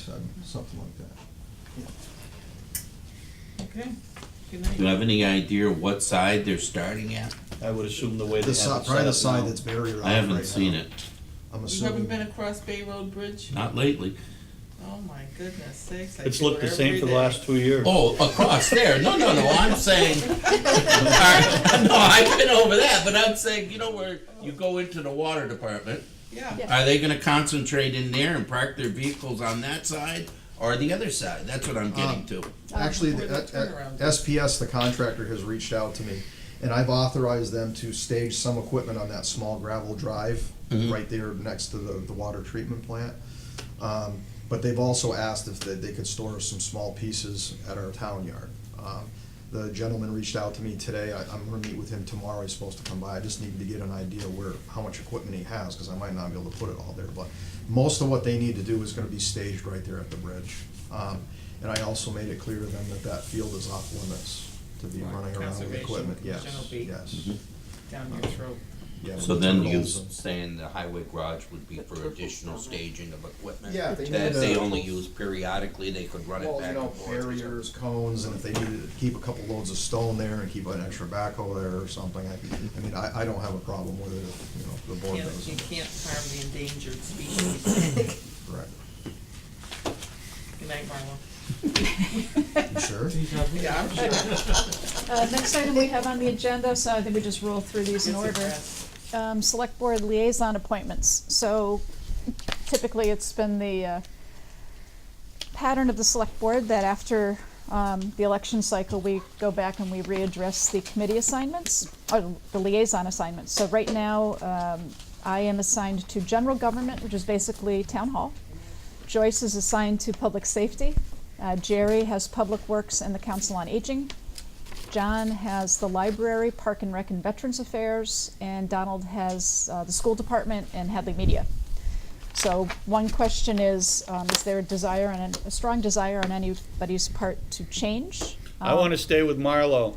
seven, something like that. Okay, good Do you night. have any idea what side they're starting at? I would assume the way they The have side, it probably set the up side now. that's buried around I haven't seen I'm it, You haven't been assuming, across Bay Road Bridge? not lately. Oh my goodness sakes. I It's go looked the every same for the day. last two years. Oh, across there, no, no, no, I'm saying, All right, no, I've been over that, but I'm saying, you know where you go into the water department? Yeah, Yeah. Are they gonna concentrate in there and park their vehicles on that side or the other side? That's what I'm getting to. actually, Where the- the uh, uh, turnaround is. SPS, the contractor, has reached out to me, and I've authorized them to stage some equipment on that small gravel drive Mhm. right there next to the, the water treatment plant. Um, But they've also asked if they, they could store some small pieces at our town yard. Um, The gentleman reached out to me today, I, I'm gonna meet with him tomorrow, he's supposed to come by, I just needed to get an idea where, how much equipment he has, cause I might not be able to put it all there, but most of what they need to do is gonna be staged right there at the bridge. Um, And I also made it clear to them that that field is off limits to be Right, running around with conservation equipment, yes, commission will be- yes. down your throat. yeah, Mm-hmm. So with then you turtles and- saying the highway garage would be for additional staging of equipment? Yeah, they That need they a- only use periodically, they could run it Well, you back know, and forth. or something. barriers, cones, and if they needed to keep a couple loads of stone there and keep an extra backhoe there or something, I, I mean, I, I don't have a problem with it, if, you know, the board Can't, you doesn't. can't harm the endangered species. Correct. Good night, Marlo. You sure? Yeah, I'm sure. Uh, next item we have on the agenda, so I think we just roll through these in It's order. addressed. Um, select board liaison appointments, so typically it's been the, uh, pattern of the select board that after, um, the election cycle, we go back and we readdress the committee assignments, or the liaison assignments. So right now, um, I am assigned to general government, which is basically town hall. Joyce is assigned to public safety. Uh, Jerry has public works and the council on aging. John has the library, Park and Rec and Veterans Affairs, and Donald has uh, the school department and Hadley Media. So one question is, um, is there a desire and a strong desire on anybody's part to change? I Oh. want to stay with Marlo.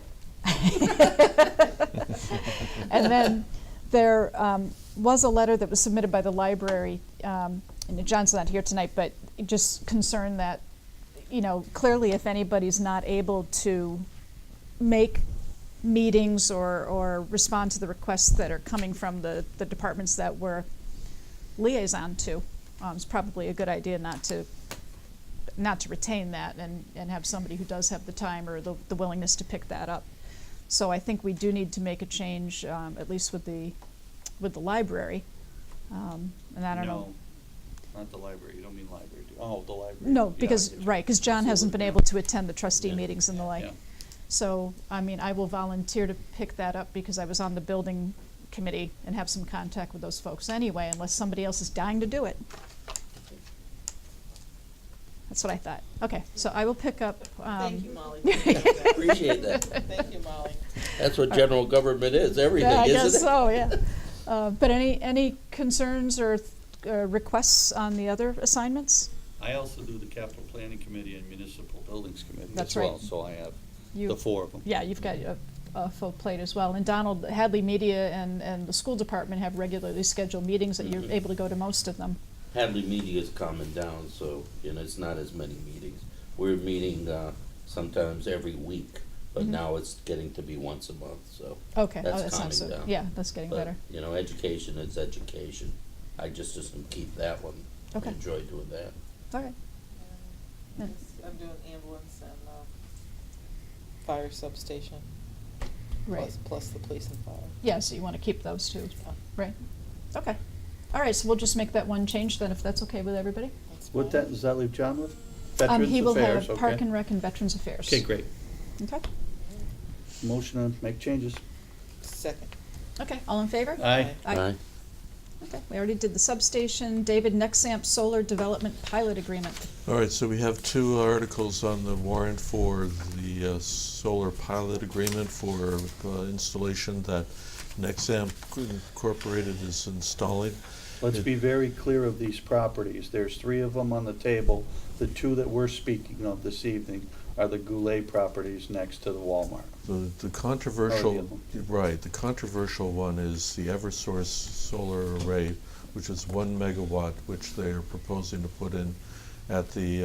And then there um, was a letter that was submitted by the library, um, and John's not here tonight, but just concerned that, you know, clearly if anybody's not able to make meetings or, or respond to the requests that are coming from the, the departments that we're liaison to, um, it's probably a good idea not to, not to retain that and, and have somebody who does have the time or the, the willingness to pick that up. So I think we do need to make a change, um, at least with the, with the library. Um, and I don't know. No, Not the library, you don't mean library, do you? Oh, the library. No, Yeah, I because, get you. right, because John So hasn't what- been able to attend the trustee Yeah. meetings and the like. Yeah. So, I mean, I will volunteer to pick that up because I was on the building committee and have some contact with those folks anyway, unless somebody else is dying to do it. That's what I thought. Okay, so I will pick up, um. Thank you, Molly. for that. Appreciate that. Thank you, Molly. That's what general government is, everything, Yeah, I isn't it? guess so, yeah. Uh, But any, any concerns or th- uh, requests on the other assignments? I also do the capital planning committee and municipal buildings committee as That's right. well, so I have You- the four of them. Yeah, you've got a, a full plate as well. And Donald, Hadley Media and, and the school department have regularly scheduled meetings that you're Mhm. able to go to most of them. Hadley Media is calming down, so, you know, it's not as many meetings. We're meeting, uh, sometimes every week, but Mhm. now it's getting to be once a month, so. Okay, oh, That's that sounds calming so, down. yeah, that's getting but, better. You know, education is education. I just, just keep that one. I Okay. Enjoy doing that. All right. Yeah. I'm doing ambulance and, um, fire substation. Right. plus- Plus the police and fire. Yeah, so you want to keep those two, Yeah, right? Okay. All right, so we'll just make that one change then, if that's okay with everybody? that's fine. What that, does that leave John with? Um, Veterans He will Affairs, have Park okay. and Rec and Veterans Affairs. Okay, great. Okay, Motion to make changes. Second. okay, all in favor? Aye. Aye. Okay, we already did the substation. David, Nexamp Solar Development Pilot Agreement. All right, so we have two articles on the warrant for the uh, solar pilot agreement for uh, installation that Nexamp Incorporated is installing. Let's be very clear of these properties. There's three of them on the table. The two that we're speaking of this evening are the Goulet properties next to the Walmart. The the controversial, other right, the controversial one is the Eversource solar array, which is one megawatt, which they are proposing to put in at the